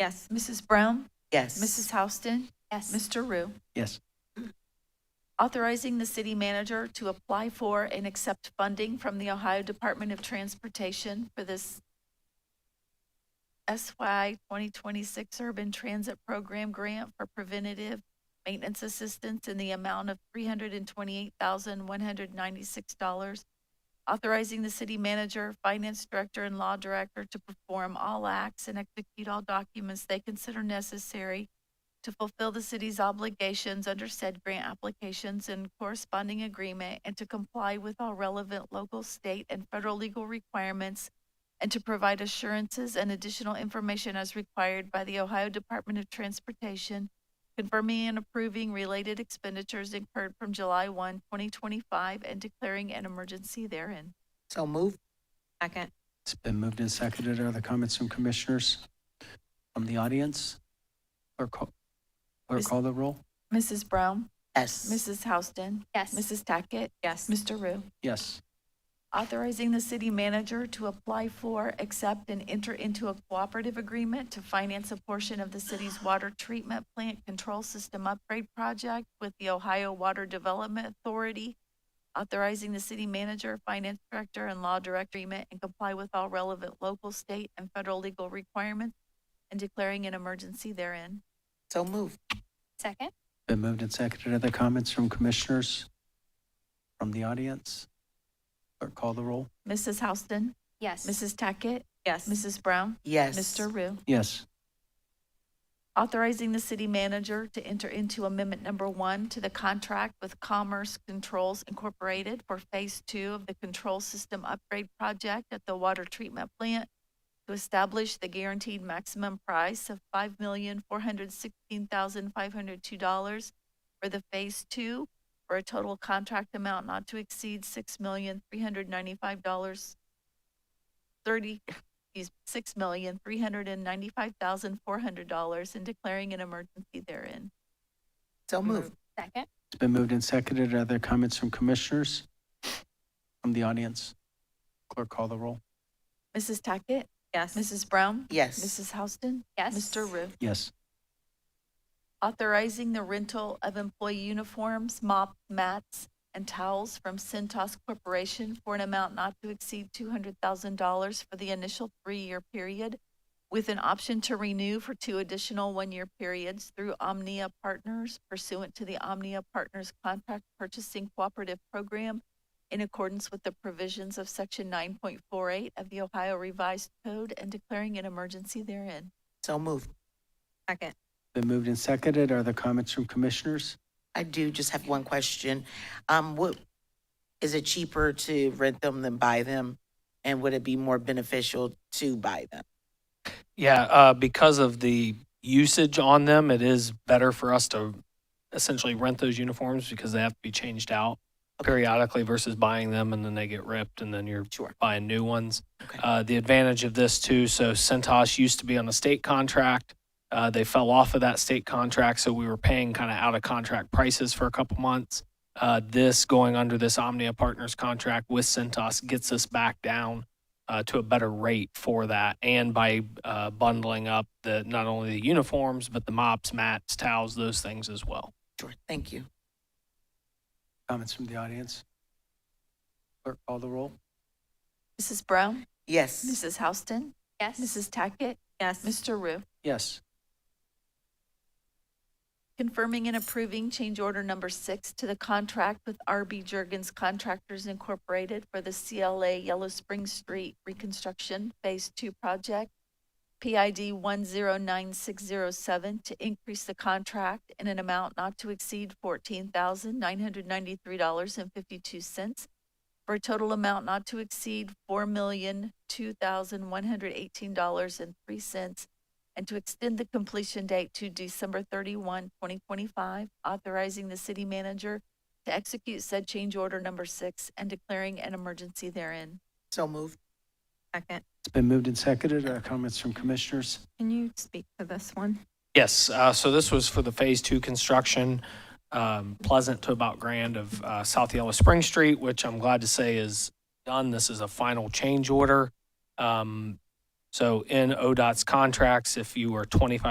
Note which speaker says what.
Speaker 1: Yes. Mrs. Brown?
Speaker 2: Yes.
Speaker 1: Mrs. Houston?
Speaker 3: Yes.
Speaker 1: Mr. Rue?
Speaker 4: Yes.
Speaker 1: Authorizing the city manager to apply for and accept funding from the Ohio Department of Transportation for this SY 2026 Urban Transit Program Grant for Preventative Maintenance Assistance in the amount of $328,196. Authorizing the city manager, finance director, and law director to perform all acts and execute all documents they consider necessary to fulfill the city's obligations under said grant applications and corresponding agreement and to comply with all relevant local, state, and federal legal requirements and to provide assurances and additional information as required by the Ohio Department of Transportation, confirming and approving related expenditures incurred from July 1, 2025, and declaring an emergency therein.
Speaker 2: So moved.
Speaker 3: Second.
Speaker 4: It's been moved and seconded. Are there comments from commissioners from the audience? Or call, or
Speaker 1: Miss-
Speaker 4: call the roll?
Speaker 1: Mrs. Brown?
Speaker 2: Yes.
Speaker 1: Mrs. Houston?
Speaker 3: Yes.
Speaker 1: Mrs. Tackett?
Speaker 3: Yes.
Speaker 1: Mr. Rue?
Speaker 4: Yes.
Speaker 1: authorizing the city manager to apply for, accept, and enter into a cooperative agreement to finance a portion of the city's water treatment plant control system upgrade project with the Ohio Water Development Authority, authorizing the city manager, finance director, and law director agreement and comply with all relevant local, state, and federal legal requirements and declaring an emergency therein.
Speaker 2: So moved.
Speaker 3: Second.
Speaker 4: Been moved and seconded. Are there comments from commissioners from the audience? Or call the roll?
Speaker 1: Mrs. Houston,
Speaker 3: Yes.
Speaker 1: Mrs. Tackett,
Speaker 3: Yes.
Speaker 1: Mrs. Brown,
Speaker 2: Yes.
Speaker 1: Mr. Rue.
Speaker 4: Yes.
Speaker 1: authorizing the city manager to enter into amendment number one to the contract with Commerce Controls Incorporated for Phase Two of the Control System Upgrade Project at the Water Treatment Plant to establish the guaranteed maximum price of five million, four hundred sixteen thousand, five hundred two dollars for the Phase Two for a total contract amount not to exceed six million, three hundred ninety-five dollars, thirty, is six million, three hundred and ninety-five thousand, four hundred dollars and declaring an emergency therein.
Speaker 2: So moved.
Speaker 3: Second.
Speaker 4: It's been moved and seconded. Are there comments from commissioners from the audience? Clerk, call the roll.
Speaker 1: Mrs. Tackett?
Speaker 3: Yes.
Speaker 1: Mrs. Brown?
Speaker 2: Yes.
Speaker 1: Mrs. Houston?
Speaker 3: Yes.
Speaker 1: Mr. Rue?
Speaker 4: Yes.
Speaker 1: Authorizing the rental of employee uniforms, mop mats, and towels from Centos Corporation for an amount not to exceed two hundred thousand dollars for the initial three-year period with an option to renew for two additional one-year periods through Omnia Partners pursuant to the Omnia Partners Contract Purchasing Cooperative Program in accordance with the provisions of section nine point four eight of the Ohio Revised Code and declaring an emergency therein.
Speaker 2: So moved.
Speaker 3: Second.
Speaker 4: Been moved and seconded. Are there comments from commissioners?
Speaker 2: I do just have one question. Um, what, is it cheaper to rent them than buy them? And would it be more beneficial to buy them?
Speaker 5: Yeah, uh, because of the usage on them, it is better for us to essentially rent those uniforms because they have to be changed out
Speaker 2: Okay.
Speaker 5: periodically versus buying them and then they get ripped and then you're
Speaker 2: Sure.
Speaker 5: buying new ones.
Speaker 2: Okay.
Speaker 5: Uh, the advantage of this too, so Centos used to be on a state contract. Uh, they fell off of that state contract, so we were paying kind of out of contract prices for a couple months. Uh, this going under this Omnia Partners contract with Centos gets us back down uh, to a better rate for that, and by uh, bundling up the not only the uniforms but the mops, mats, towels, those things as well.
Speaker 2: Sure. Thank you.
Speaker 4: Comments from the audience? Clerk, call the roll.
Speaker 1: Mrs. Brown?
Speaker 2: Yes.
Speaker 1: Mrs. Houston?
Speaker 3: Yes.
Speaker 1: Mrs. Tackett?
Speaker 3: Yes.
Speaker 1: Mr. Rue?
Speaker 4: Yes.
Speaker 1: Confirming and approving change order number six to the contract with RB Jurgens Contractors Incorporated for the CLA Yellow Spring Street Reconstruction Phase Two Project, PID one zero nine six zero seven, to increase the contract in an amount not to exceed fourteen thousand nine hundred ninety-three dollars and fifty-two cents for a total amount not to exceed four million two thousand one hundred eighteen dollars and three cents and to extend the completion date to December 31, 2025, authorizing the city manager to execute said change order number six and declaring an emergency therein.
Speaker 2: So moved.
Speaker 3: Second.
Speaker 4: It's been moved and seconded. Are there comments from commissioners?
Speaker 3: Can you speak to this one?
Speaker 5: Yes, uh, so this was for the phase two construction, um, Pleasant to about Grand of uh, South Yellow Spring Street, which I'm glad to say is done. This is a final change order. Um, So in ODOT's contracts, if you were twenty-five